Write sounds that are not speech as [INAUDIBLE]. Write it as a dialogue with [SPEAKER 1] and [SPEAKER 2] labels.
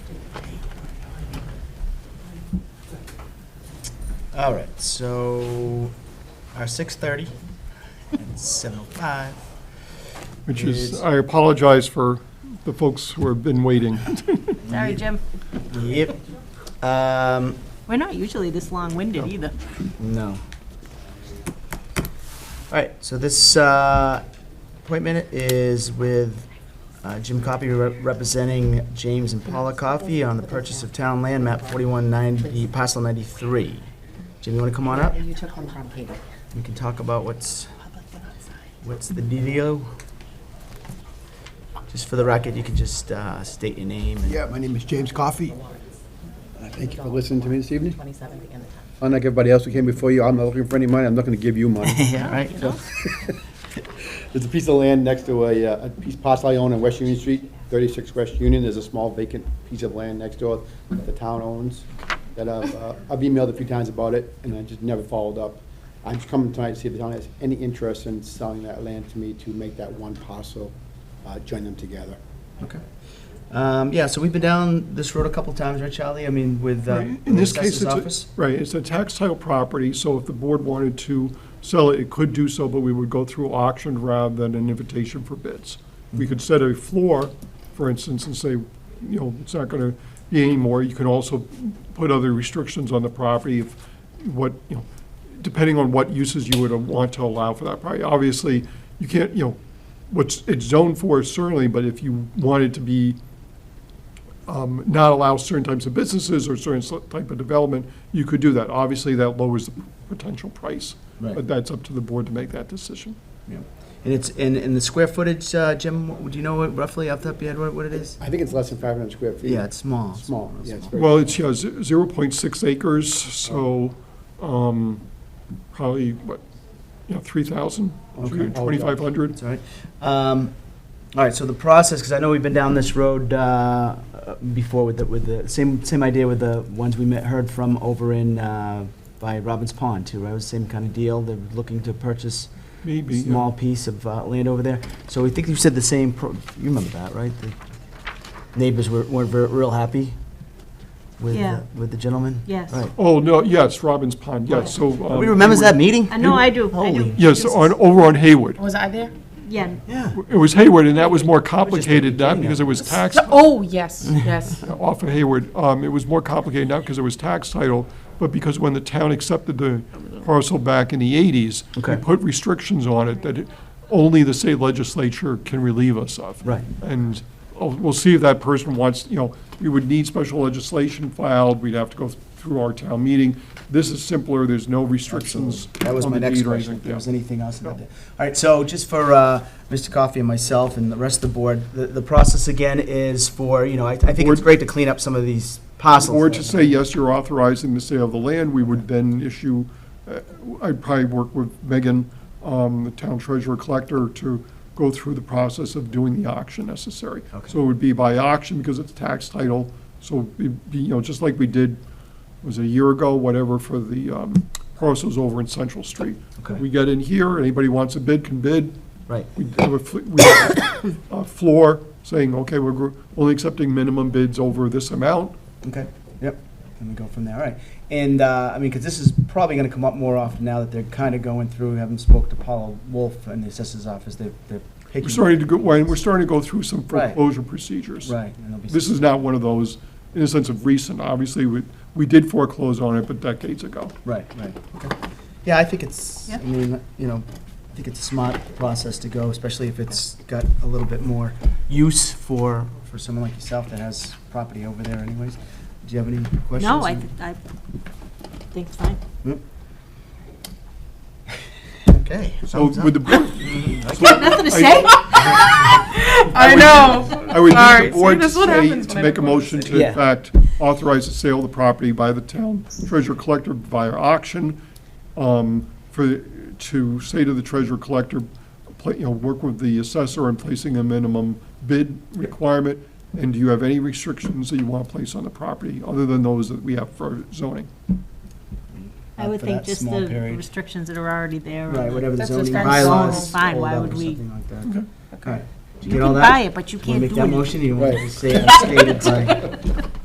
[SPEAKER 1] All right, so our six thirty and seven oh five.
[SPEAKER 2] Which
[SPEAKER 1] Is-
[SPEAKER 2] is, I apologize for the folks who have been [LAUGHS] waiting.
[SPEAKER 3] Sorry, Jim.
[SPEAKER 1] Yep. Um,
[SPEAKER 3] We're not usually this long-winded either.
[SPEAKER 1] no. All right, so this uh, appointment is with uh, Jim Coffey re- representing James and Paula Coffey on the purchase of town land map forty-one ninety, parcel ninety-three. Jim, you want to come on up?
[SPEAKER 4] And you took one from Peter.
[SPEAKER 1] We can talk about what's, what's the dealio. Just for the record, you can just uh, state your name and
[SPEAKER 5] Yeah, my name is James Coffey. Uh, Thank you for listening to me this evening.
[SPEAKER 4] 27th and the 10th.
[SPEAKER 5] Unlike everybody else who came before you, I'm not looking for any money, I'm not gonna give
[SPEAKER 1] [LAUGHS]
[SPEAKER 5] you money.
[SPEAKER 1] Yeah, right.
[SPEAKER 5] There's a piece of land next to a, uh, a piece parcel I own on West Union Street, thirty-six West Union, there's a small vacant piece of land next door that the town owns, that I've, uh, I've emailed a few times about it, and I just never followed up. I'm just coming tonight to see if the town has any interest in selling that land to me to make that one parcel, uh, join them together.
[SPEAKER 1] Okay. Um, yeah, so we've been down this road a couple times, right, Charlie? I mean, with uh,
[SPEAKER 2] In
[SPEAKER 1] the
[SPEAKER 2] this case,
[SPEAKER 1] assessor's
[SPEAKER 2] it's,
[SPEAKER 1] office?
[SPEAKER 2] a- right, it's a tax title property, so if the board wanted to sell it, it could do so, but we would go through auction rather than an invitation for bids. We could set a floor, for instance, and say, you know, it's not going to be any more. You can also put other restrictions on the property if, what, you know, depending on what uses you would want to allow for that property. Obviously, you can't, you know, what's, it's zoned for certainly, but if you wanted to be um, not allow certain types of businesses or certain sl- type of development, you could do that. Obviously, that lowers the potential price.
[SPEAKER 1] Right.
[SPEAKER 2] But that's up to the board to make that decision.
[SPEAKER 1] Yeah. And it's, and, and the square footage, uh, Jim, what- do you know what roughly off the top of your head what- what it is?
[SPEAKER 5] I think it's less than five hundred square feet.
[SPEAKER 1] Yeah, it's small.
[SPEAKER 5] Small, yeah, it's very
[SPEAKER 2] Well, it's, yeah, ze- zero point six acres, so, um, probably, what, you know, three thousand,
[SPEAKER 5] Okay.
[SPEAKER 2] twenty-five hundred?
[SPEAKER 1] It's all right. Um, all right, so the process, because I know we've been down this road uh, uh, before with the, with the, same, same idea with the ones we met, heard from over in, uh, by Robbins Pond too, right? It was the same kind of deal, they're looking to purchase
[SPEAKER 2] Maybe, yeah.
[SPEAKER 1] small piece of uh, land over there. So we think you said the same, pro- you remember that, right? The Neighbors were- weren't ver- real happy with,
[SPEAKER 3] Yeah.
[SPEAKER 1] the- with the gentleman?
[SPEAKER 3] Yes.
[SPEAKER 1] Right.
[SPEAKER 2] Oh, no, yes, Robbins Pond, yes, so. um,
[SPEAKER 1] Nobody remembers
[SPEAKER 2] we were-
[SPEAKER 1] that meeting?
[SPEAKER 3] I know I do, I do.
[SPEAKER 1] Holy.
[SPEAKER 2] Yes, on, over on Hayward.
[SPEAKER 4] Was I there?
[SPEAKER 3] Yeah,
[SPEAKER 1] Yeah.
[SPEAKER 2] It was Hayward, and that was more
[SPEAKER 1] just a
[SPEAKER 2] complicated, not
[SPEAKER 1] beginning
[SPEAKER 2] because it
[SPEAKER 1] of
[SPEAKER 2] was tax.
[SPEAKER 4] Oh, yes, yes.
[SPEAKER 2] off of Hayward, um, it was more complicated, not because it was tax title, but because when the town accepted the parcel back in the eighties,
[SPEAKER 1] Okay.
[SPEAKER 2] we put restrictions on it that it- only the state legislature can relieve us of.
[SPEAKER 1] Right.
[SPEAKER 2] And oh, we'll see if that person wants, you know, we would need special legislation filed, we'd have to go through our town meeting. This is simpler, there's no restrictions
[SPEAKER 1] That was
[SPEAKER 2] on
[SPEAKER 1] my
[SPEAKER 2] the
[SPEAKER 1] next
[SPEAKER 2] deed or
[SPEAKER 1] question,
[SPEAKER 2] anything.
[SPEAKER 1] if there
[SPEAKER 2] Yeah.
[SPEAKER 1] was anything else about that. All right, so just for uh, Mr. Coffey and myself and the rest of the board, the, the process again is for, you know, I, I think it's
[SPEAKER 2] Board-
[SPEAKER 1] great to clean up some of these parcels.
[SPEAKER 2] Or
[SPEAKER 1] that-
[SPEAKER 2] to say, yes, you're authorizing the sale of the land, we would then issue, uh, I'd probably work with Megan, um, the town treasurer collector, to go through the process of doing the auction necessary.
[SPEAKER 1] Okay.
[SPEAKER 2] So it would be by auction because it's tax title, so it'd be, you know, just like we did, was it a year ago, whatever, for the um, parcels over in Central Street.
[SPEAKER 1] Okay.
[SPEAKER 2] We get in here, anybody wants a bid can bid,
[SPEAKER 1] Right,
[SPEAKER 2] we have a, fl- we have a floor saying, okay, we're gr- only accepting minimum bids over this amount,
[SPEAKER 1] okay, yep, and we go from there, all right. And, uh, I mean, because this is probably gonna come up more often now that they're kind of going through, having spoke to Paula Wolf in the assessor's office, they're, they're picking.
[SPEAKER 2] We're starting to go, when we're starting to go through some
[SPEAKER 1] Right.
[SPEAKER 2] foreclosure procedures.
[SPEAKER 1] Right. and there'll be-
[SPEAKER 2] This is not one of those, in a sense of recent, obviously, we, we did foreclose on it, but decades ago.
[SPEAKER 1] Right, right, okay. Yeah, I think it's, I
[SPEAKER 3] Yeah.
[SPEAKER 1] mean, you know, I think it's a smart process to go, especially if it's got a little bit more use for, for someone like yourself that has property over there anyways. Do you have any questions?
[SPEAKER 3] no, I, th- I think it's fine.
[SPEAKER 1] Okay.
[SPEAKER 2] So
[SPEAKER 1] thumbs up.
[SPEAKER 2] would the board,
[SPEAKER 3] Nothing
[SPEAKER 1] [LAUGHS]
[SPEAKER 3] to say?
[SPEAKER 4] [LAUGHS] I know.
[SPEAKER 2] I would
[SPEAKER 4] Sorry,
[SPEAKER 2] need the
[SPEAKER 4] see,
[SPEAKER 2] board to
[SPEAKER 4] that's what
[SPEAKER 2] say,
[SPEAKER 4] happens when
[SPEAKER 2] to
[SPEAKER 4] I
[SPEAKER 2] make a
[SPEAKER 4] don't want to
[SPEAKER 2] motion to,
[SPEAKER 1] Yeah.
[SPEAKER 2] in fact, authorize the sale of the property by the town treasurer collector via auction, um, for, to say to the treasurer collector, pla- you know, work with the assessor in placing a minimum bid requirement, and do you have any restrictions that you want to place on the property, other than those that we have for zoning?
[SPEAKER 3] I would
[SPEAKER 1] For
[SPEAKER 3] think
[SPEAKER 1] that
[SPEAKER 3] just
[SPEAKER 1] small
[SPEAKER 3] the
[SPEAKER 1] period.
[SPEAKER 3] restrictions that are already there. or
[SPEAKER 1] Right,
[SPEAKER 3] the-
[SPEAKER 1] whatever the
[SPEAKER 4] That's
[SPEAKER 1] zoning
[SPEAKER 4] what's
[SPEAKER 1] bylaws.
[SPEAKER 3] fine,
[SPEAKER 1] hold
[SPEAKER 3] why
[SPEAKER 1] up
[SPEAKER 3] would
[SPEAKER 1] or
[SPEAKER 3] we-
[SPEAKER 1] Something like that. Okay. Did you
[SPEAKER 3] You
[SPEAKER 1] get all
[SPEAKER 3] can
[SPEAKER 1] that?
[SPEAKER 3] buy it, but you
[SPEAKER 1] Want
[SPEAKER 3] can't
[SPEAKER 1] to make
[SPEAKER 3] do
[SPEAKER 1] that
[SPEAKER 3] anything.
[SPEAKER 1] motion, or you want to
[SPEAKER 3] [LAUGHS]
[SPEAKER 5] Right.
[SPEAKER 1] say as stated by?